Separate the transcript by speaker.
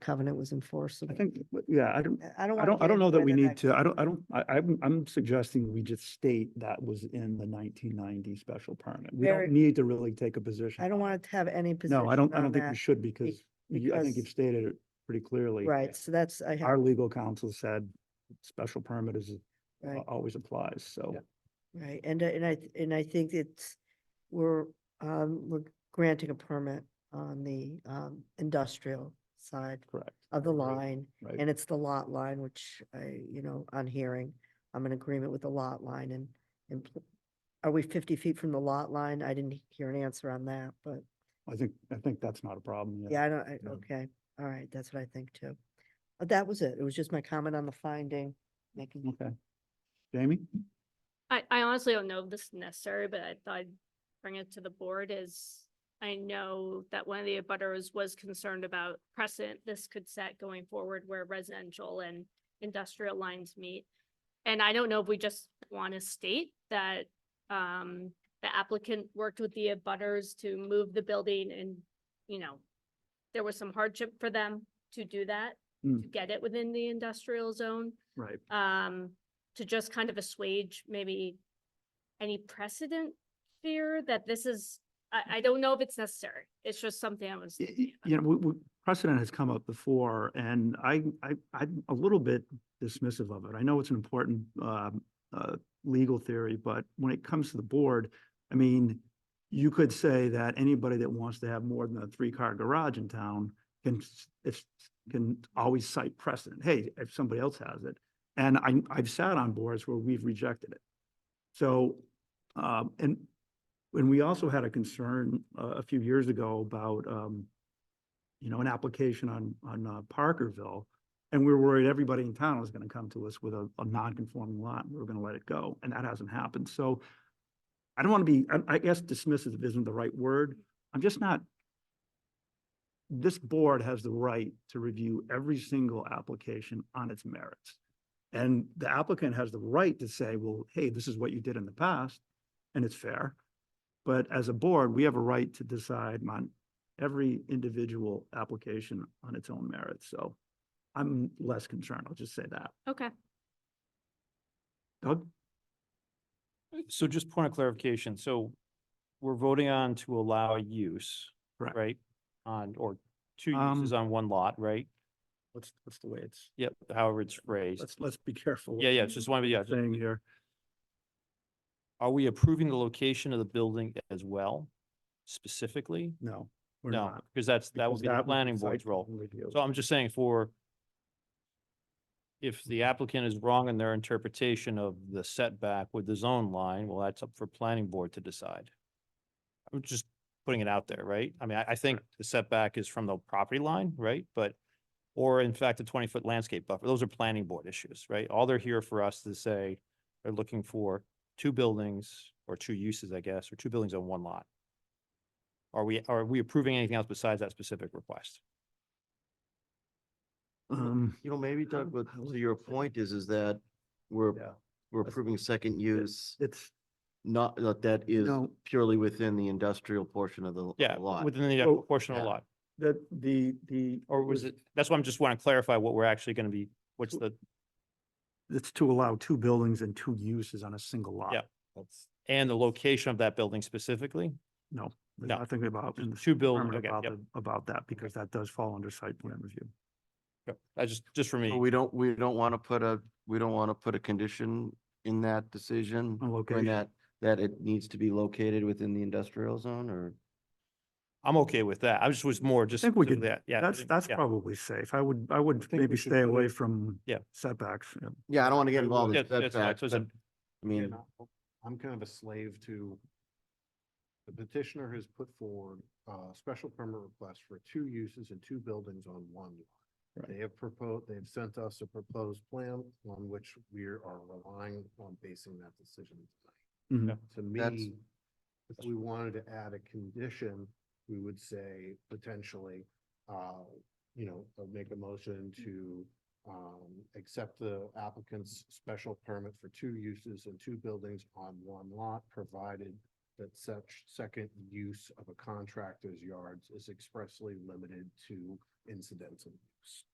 Speaker 1: covenant was
Speaker 2: I
Speaker 1: enforceable.
Speaker 2: think, yeah, I don't,
Speaker 1: I don't.
Speaker 2: I
Speaker 1: wanna
Speaker 2: don't, I
Speaker 1: get
Speaker 2: don't know
Speaker 1: into
Speaker 2: that we
Speaker 1: whether
Speaker 2: need to, I don't, I don't, I, I'm, I'm suggesting we just state that was in the nineteen ninety special permit. We
Speaker 1: Very-
Speaker 2: don't need to really take a position.
Speaker 1: I don't
Speaker 2: on
Speaker 1: want to have any
Speaker 2: it.
Speaker 1: position
Speaker 2: No, I don't, I
Speaker 1: on
Speaker 2: don't think
Speaker 1: that.
Speaker 2: we should because you, I think
Speaker 1: because-
Speaker 2: you've stated it pretty clearly.
Speaker 1: Right, so that's, I have,
Speaker 2: Our legal counsel said special permit is, uh,
Speaker 1: right,
Speaker 2: always applies, so.
Speaker 1: right, and, I- and I, th- and I think it's, we're, um, we're granting a permit on the, um, industrial side
Speaker 2: Correct.
Speaker 1: of the
Speaker 2: Right,
Speaker 1: line,
Speaker 2: Right.
Speaker 1: and it's the lot line, which I, you know, on hearing, I'm in agreement with the lot line and, and pl- are we fifty feet from the lot line? I didn't hear an answer on that, but
Speaker 2: I think, I think that's not a problem.
Speaker 1: Yeah, I don't, I,
Speaker 2: Yeah.
Speaker 1: okay, all right, that's what I think too. But that was it. It was just my comment on the finding, making,
Speaker 2: Okay. Jamie?
Speaker 3: I, I honestly don't know if this is necessary, but I thought I'd bring it to the board is I know that one of the abutters was concerned about precedent this could set going forward where residential and industrial lines meet. And I don't know if we just want to state that, um, the applicant worked with the abutters to move the building and, you know, there was some hardship for them to do that, to
Speaker 2: Mm,
Speaker 3: get it within the industrial zone
Speaker 2: Right.
Speaker 3: um, to just kind of assuage maybe any precedent fear that this is, I, I don't know if it's necessary. It's just something I was.
Speaker 2: Y-
Speaker 3: thinking
Speaker 2: y-
Speaker 3: about.
Speaker 2: You know, we, we, precedent has come up before and I, I, I'm a little bit dismissive of it. I know it's an important, um, uh, legal theory, but when it comes to the board, I mean, you could say that anybody that wants to have more than a three-car garage in town can, s- if, can always cite precedent. Hey, if somebody else has it. And I, I've sat on boards where we've rejected it. So, um, and and we also had a concern uh, a few years ago about, um, you know, an application on, on uh, Parkerville. And we were worried everybody in town was going to come to us with a, a non-conforming lot and we were going to let it go. And that hasn't happened. So I don't want to be, I- I guess dismissive isn't the right word. I'm just not. This board has the right to review every single application on its merits. And the applicant has the right to say, well, hey, this is what you did in the past and it's fair. But as a board, we have a right to decide on every individual application on its own merit, so I'm less concerned, I'll just say that.
Speaker 3: Okay,
Speaker 2: Doug? Mm.
Speaker 4: So just point of clarification, so we're voting on to allow a use,
Speaker 2: Correct. Um,
Speaker 4: right? On, or two uses on one lot, right?
Speaker 2: What's, what's the way it's,
Speaker 4: Yep, however it's phrased.
Speaker 2: let's, let's be careful. what
Speaker 4: Yeah, yeah, it's just one, yeah.
Speaker 2: we're Saying here,
Speaker 4: Are we approving the location of the building as well specifically?
Speaker 2: no, we're
Speaker 4: No,
Speaker 2: not.
Speaker 4: because that's, that
Speaker 2: because
Speaker 4: would be the
Speaker 2: was
Speaker 4: planning
Speaker 2: site
Speaker 4: board's role.
Speaker 2: plan review.
Speaker 4: So I'm just saying for if the applicant is wrong in their interpretation of the setback with the zone line, well, that's up for planning board to decide. I'm just putting it out there, right? I mean, I, I think the setback is from the property line, right? But, or in fact, a twenty-foot landscape buffer, those are planning board issues, right? All they're here for us to say, they're looking for two buildings or two uses, I guess, or two buildings on one lot. Are we, are we approving anything else besides that specific request?
Speaker 2: Um,
Speaker 5: You know, maybe Doug, but
Speaker 2: how would
Speaker 5: to your
Speaker 2: you say-
Speaker 5: point is, is that we're,
Speaker 2: yeah,
Speaker 5: we're
Speaker 2: that's-
Speaker 5: approving second use,
Speaker 2: it's,
Speaker 5: not, that that is
Speaker 2: No.
Speaker 5: purely within the industrial portion of the of the
Speaker 4: Yeah,
Speaker 5: lot.
Speaker 4: within the
Speaker 2: So-
Speaker 4: portion of the
Speaker 5: Yeah.
Speaker 4: lot,
Speaker 2: that, the, the.
Speaker 4: or was it, that's why I'm just want to clarify what we're actually going to be, what's
Speaker 2: So-
Speaker 4: the,
Speaker 2: It's to allow two buildings and two uses on a single lot.
Speaker 4: Yeah. and the location of that building specifically?
Speaker 2: There's
Speaker 4: No.
Speaker 2: Nothing about, in the
Speaker 4: Two buildings,
Speaker 2: permit
Speaker 4: okay,
Speaker 2: about,
Speaker 4: yep,
Speaker 2: the- about that, because that does fall under site plan review.
Speaker 4: yep. I just, just for
Speaker 5: So
Speaker 4: me,
Speaker 5: We don't, we don't want to put a, we don't want to put a condition in that decision.
Speaker 2: On
Speaker 5: or in
Speaker 2: location.
Speaker 5: That, that it needs to be located within the industrial zone or?
Speaker 4: I'm okay with that. I just was more just.
Speaker 2: think we
Speaker 4: to
Speaker 2: could-
Speaker 4: that, Yeah.
Speaker 2: That's, that's
Speaker 4: yeah.
Speaker 2: probably safe. I would, I would
Speaker 4: think we
Speaker 2: maybe
Speaker 4: should
Speaker 2: stay
Speaker 4: put
Speaker 2: away
Speaker 4: it-
Speaker 2: from
Speaker 4: Yeah.
Speaker 2: setbacks. yeah.
Speaker 5: Yeah, I don't want to get involved
Speaker 4: Yeah,
Speaker 5: in
Speaker 4: that's fine.
Speaker 5: setbacks,
Speaker 4: So it's
Speaker 5: but
Speaker 4: a-
Speaker 5: I mean,
Speaker 6: I'm kind of a slave to, the petitioner has put forward a special permit request for two uses and two buildings on one lot. They have proposed, they've sent us a proposed plan on which we are relying on basing that decision.
Speaker 2: Mhm.
Speaker 4: Yeah.
Speaker 6: To
Speaker 5: That's-
Speaker 6: me, if we wanted to add a condition, we would say potentially, uh, you know, uh, make a motion to um, accept the applicant's special permit for two uses and two buildings on one lot, provided that such second use of a contractor's yards is expressly limited to incidental use.